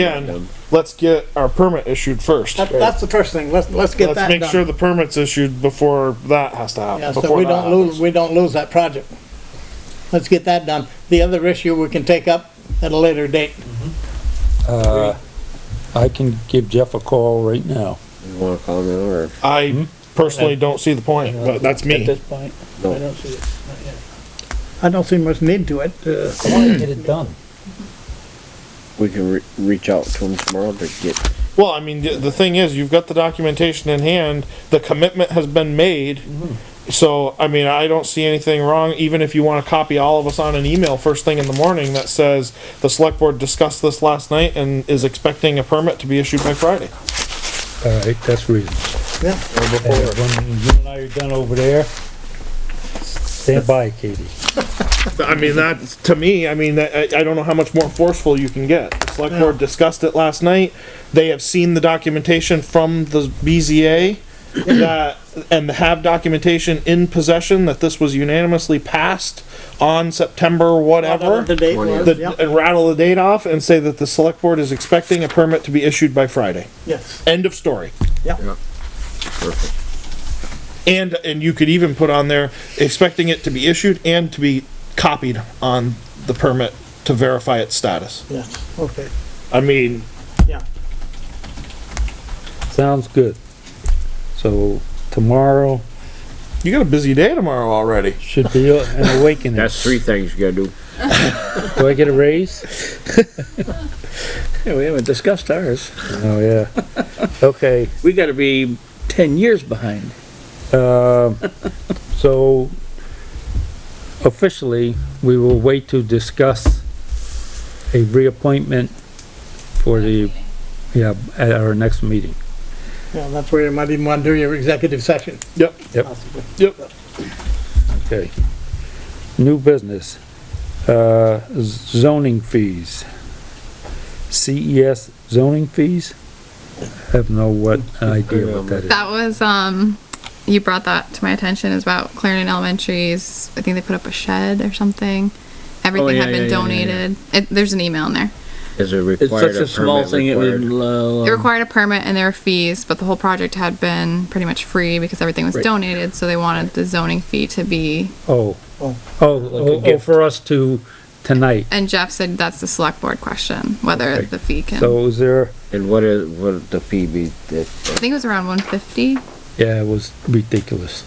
Again, let's get our permit issued first. That, that's the first thing, let's, let's get Let's that make sure done. the permit's issued before that has to Yeah, happen. so before we that don't happens. lose, we don't lose that project. Let's get that done. The other issue we can take up at a later date. Uh, I can give Jeff a call right now. You wanna call me or? I personally don't see the point, but that's At me. this point, I No. don't see it. I don't see much need to it. uh, I wanna get it done. We can re- reach out to him tomorrow to get, Well, I mean, the, the thing is, you've got the documentation in hand, the commitment has been made. So, I mean, I don't see anything wrong, even if you wanna copy all of us on an email first thing in the morning that says, the select board discussed this last night and is expecting a permit to be issued by Friday. All right, that's reasonable. Yeah, And when you and I are done over there, stand by, Katie. I mean, that, to me, I mean, that, I, I don't know how much more forceful you can get. The select board discussed it last night. They have seen the documentation from the BZA that, and have documentation in possession that this was unanimously passed on September whatever. The date was, The- yeah, And rattle the date off and say that the select board is expecting a permit to be issued by Friday. yes, End of story. yeah. And, and you could even put on there expecting it to be issued and to be copied on the permit to verify its status. Yes, okay, I mean, yeah. Sounds good. So tomorrow you got a busy day tomorrow already. should be an awakening. that's three things you gotta do. Do I get a raise? Yeah, we haven't discussed ours. Oh, yeah. Okay, We gotta be ten years behind. uh, so officially, we will wait to discuss a reappointment for the, yeah, at our next meeting. Yeah, that's where you might even want to do your executive session. Yep. Yep. possibly. Yep. Okay. New business, uh, z- zoning fees. CES zoning fees? Have no what uh, idea what that is. That was, um, you brought that to my attention is about Clarendon Elementary's, I think they put up a shed or something. Everything Oh, yeah, had yeah, been yeah, yeah, yeah. donated. It, there's an email in there. Is it It's required? such a small permit thing, it would, required? It uh, required a permit and there were fees, but the whole project had been pretty much free because everything was Right. donated, so they wanted the zoning fee to be, Oh, Oh. oh, oh, oh, for us to, tonight. and Jeff said that's the select board question, whether Okay. the fee can, I So is there, And what is, what the fee be, that, think it was around one fifty. yeah, it was ridiculous.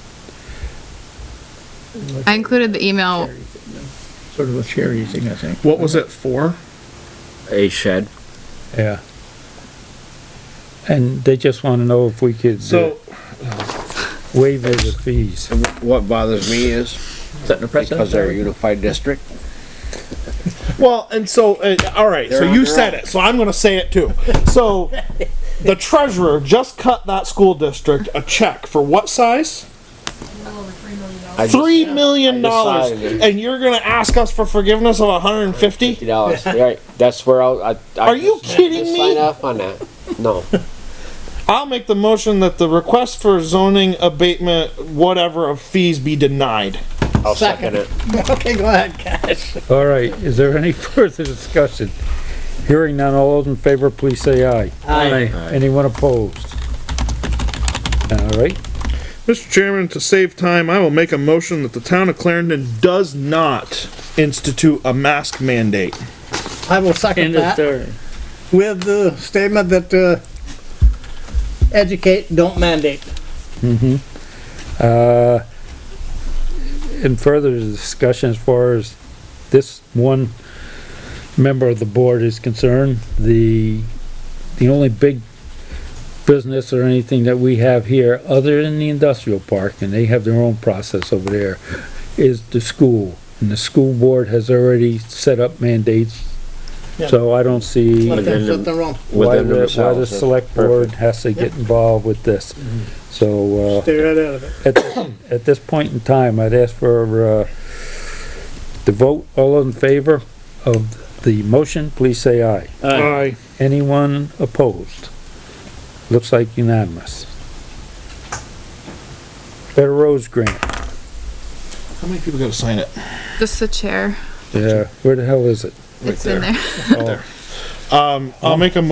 I included the email, sort of a charity thing, I think. What was it for? a shed? Yeah. And they just wanna know if we could uh, So, waive the fees. And wh- What bothers me is, Setting a because they're a precedent. unified district, well, and so, uh, all right, so They're on you their said own. it, so I'm going to say it too. So, the treasurer just cut that school district a check for what size? I just. Three million dollars, decided. and you're going to ask us for forgiveness of 150? dollars, right, that's where I'll, I. I Are you just- kidding just me? Sign off on that, no, I'll make the motion that the request for zoning abatement, whatever of fees, be denied. I'll second it. Okay, go ahead, Cash. All right, is there any further discussion? Hearing none, all those in favor, please say aye. Aye. Anyone opposed? All right, Mr. Chairman, to save time, I will make a motion that the town of Clarendon does not institute a mask mandate. I will second End of that story. with the statement that, uh, educate, don't mandate. uh, and further discussion as far as this one member of the board is concerned, the, the only big business or anything that we have here, other than the industrial park, and they have their own process over there, is the school. And the school board has already set up mandates, Yeah. so I don't see Let them Within the- sit in wrong. why Within the, why the themselves, that's select board has to get involved with this. Mm-hmm. So, uh, Stay right out of it. at, at this point in time, I'd ask for, uh, the vote, all in favor of the motion, please say aye. Aye. Anyone opposed? Looks like unanimous. Better Roads Grant, How many people gotta sign it? just the chair, Uh, yeah, where the hell is it? it's in there. Oh, Um, I'll make a motion